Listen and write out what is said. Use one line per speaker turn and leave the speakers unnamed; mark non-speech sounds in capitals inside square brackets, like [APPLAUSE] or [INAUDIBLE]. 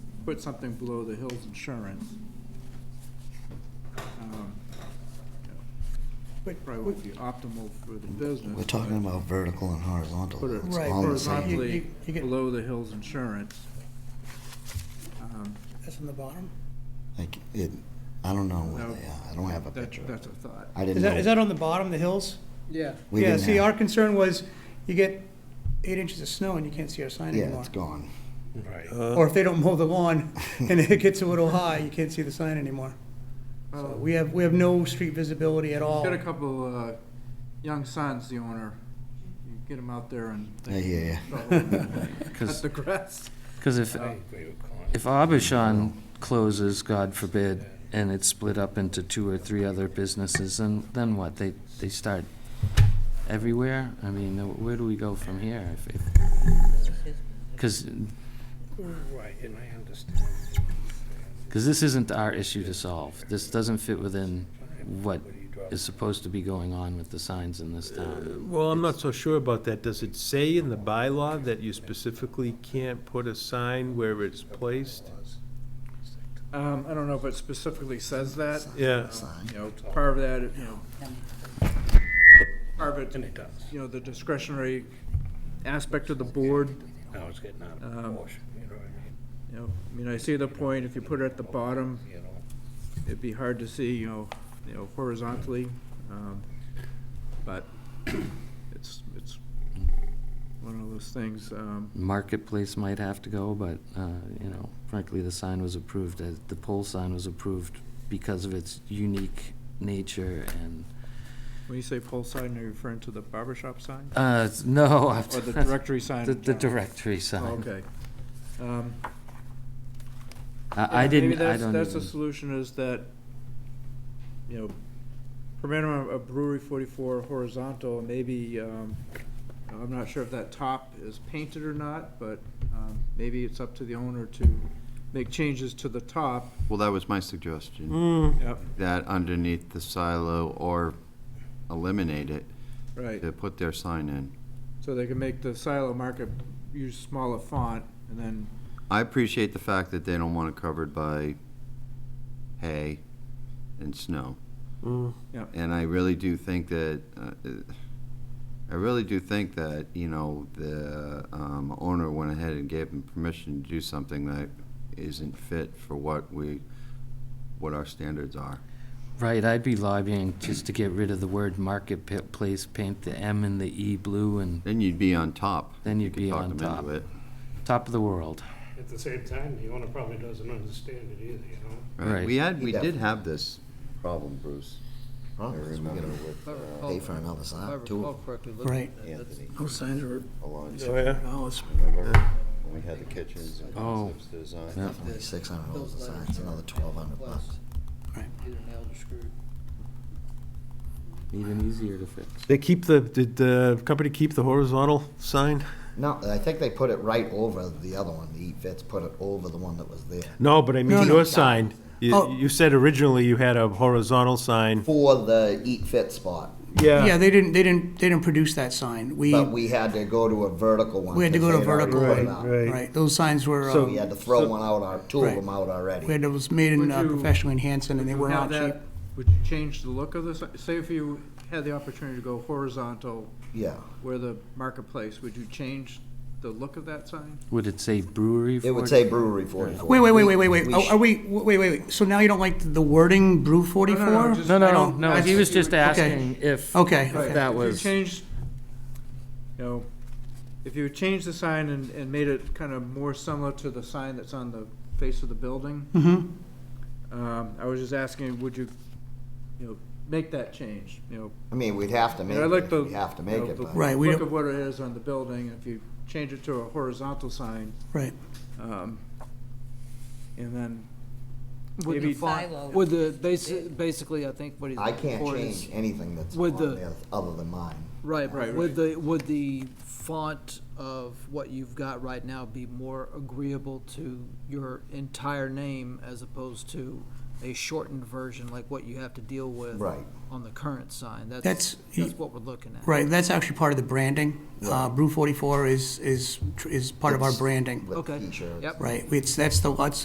put something below the Hills Insurance. Um,
But-
Probably won't be optimal for the business.
We're talking
but
about vertical and horizontal.
Put it
It's
Right,
all the same.
You-
horizontally
you- you get-
below the Hills Insurance. Um,
That's on the bottom?
Like, it, I don't know where
No.
they are. I don't have a
that-
picture.
That's a thought.
I
Is
didn't
that, is
know.
that on the bottom, the hills?
Yeah.
We
Yeah,
didn't
see,
have-
our concern was you get eight inches of snow and you can't see our sign
Yeah,
anymore.
it's gone.
Or if they don't mow the
[LAUGHS]
lawn and it gets a little high, you can't see the sign anymore.
Oh.
So Uh, we have, we have no street visibility at all.
Got a couple, uh, young sons, the owner, you get them out there
[LAUGHS]
and.
Yeah, yeah,
Cut
Because
the grass.
because if if Abishan closes, God forbid, and it's split up into two or three other businesses, and then what? They they start everywhere. I mean, where do we go from here? Because
Right, and I understand.
because this isn't our issue to solve. This doesn't fit within what is supposed to be going on with the signs in this town.
Well, I'm not so sure about that. Does it say in the bylaw that you specifically can't put a sign where it's placed?
Um, I don't know if it specifically says that,
Yeah,
you know, part of that, you know, part of
And
it,
it does.
you know, the discretionary aspect of the board,
Now it's getting out of
Um,
proportion, you know what I mean?
you know, I mean, I see the point, if you put it at the bottom,
You know,
it'd be hard to see, you know, you know, horizontally, um, but it's, it's one of those things, um,
marketplace might have to go, but, uh, you know, frankly, the sign was approved, as- the pole sign was approved because of its unique nature and,
when you say pole sign, are you referring to the barber shop sign?
uh, no. [LAUGHS] I'm-
Or the directory sign?
[LAUGHS] The,
in
the
town?
directory sign.
Oh, Okay. Um,
I, I
Yeah,
didn't,
Maybe
I
that's,
don't
that's the
even,
solution is that, you know, per minimum of brewery forty-four horizontal, maybe, um, I'm not sure if that top is painted or not, but, um, maybe it's up to the owner to make changes to the top.
Well, that was my
Mm.
suggestion,
Mm,
Yep.
that underneath the silo or eliminate it,
Right,
to put their sign in.
so they can make the silo market use smaller font and then,
I appreciate the fact that they don't want it covered by hay and snow.
mm.
Yeah.
And I really do think that, uh, I really do think that, you know, the um, owner went ahead and gave them permission to do something that isn't fit for what we, what our standards are.
right, I'd be lobbying just to get rid of the word marketplace, paint the M and the E blue and
Then you'd be on top.
Then you'd
You could
be
talk
on
them into
top.
it.
top of the world.
At the same time, the owner probably doesn't understand it either, you know?
Right.
We had,
He
we did
definitely-
have this problem, Bruce.
Wrong, it's
remember
gonna
with, uh,
Pay for another sign, too,
Oh,
Right.
Anthony
Those signs are,
Alonso,
oh, yeah.
remember? When we had the kitchens and
Oh.
concepts design.
Yeah.
definitely six hundred dollars a sign, it's another twelve hundred bucks.
Even easier to fix.
They keep the, did the company keep the horizontal sign?
No, I think they put it right over the other one, the Eat Fit's put it over the one that was there,
No, but I
No,
mean
no.
your sign.
Oh.
You, you said originally you had a horizontal sign.
for the Eat Fit spot,
yeah, they didn't, they didn't, they didn't produce that sign. We,
but we had to go to a vertical one.
E- we had to
'cause
go to
they'd already
vertical.
put it out.
Right, those signs were,
So-
um,
We had to throw one out, or two of
Right.
them out already.
we had those made in
Would
uh,
you-
professionally in Hanson and they were
Now
not cheap.
that, would you change the look of this? Say if you had the opportunity to go horizontal
Yeah,
where the marketplace, would you change the look of that sign?
Would it say brewery for?
it would say brewery forty-four.
Wait, wait, wait, wait, wait, wait.
We
Are
sh-
are we, wait, wait, wait. So now you don't like the wording brew forty-four?
just-
No,
I
no,
don't-
no,
I
he was
just-
just asking if.
Okay,
if
okay.
That
If
was.
you changed, you know, if you changed the sign and, and made it kind of more similar to the sign that's on the face of the building,
Mm-hmm.
um, I was just asking, would you, you know, make that change, you know?
I mean, we'd have to make
I like
it,
the.
we have to
you
make
know,
it,
the
but.
Right, we
Look
don't-
of what it is on the building, if you change it to a horizontal sign,
Right.
um, and then
With the
maybe.
font, with the, basi- basically, I think what he's
I can't
looking for is-
change anything that's
With
on
the-
there other than mine.
Right,
Right,
with
right.
the, would the font of what you've got right now be more agreeable to your entire name as opposed to a shortened version like what you have to deal with?
Right.
On the current sign,
That's-
that's, that's what we're looking at.
Right, that's actually part of the branding. Uh, Brew 44 is, is, tr- is part of our
It's
branding,
With
Okay,
t-shirts.
yep.
right? It's, that's the, that's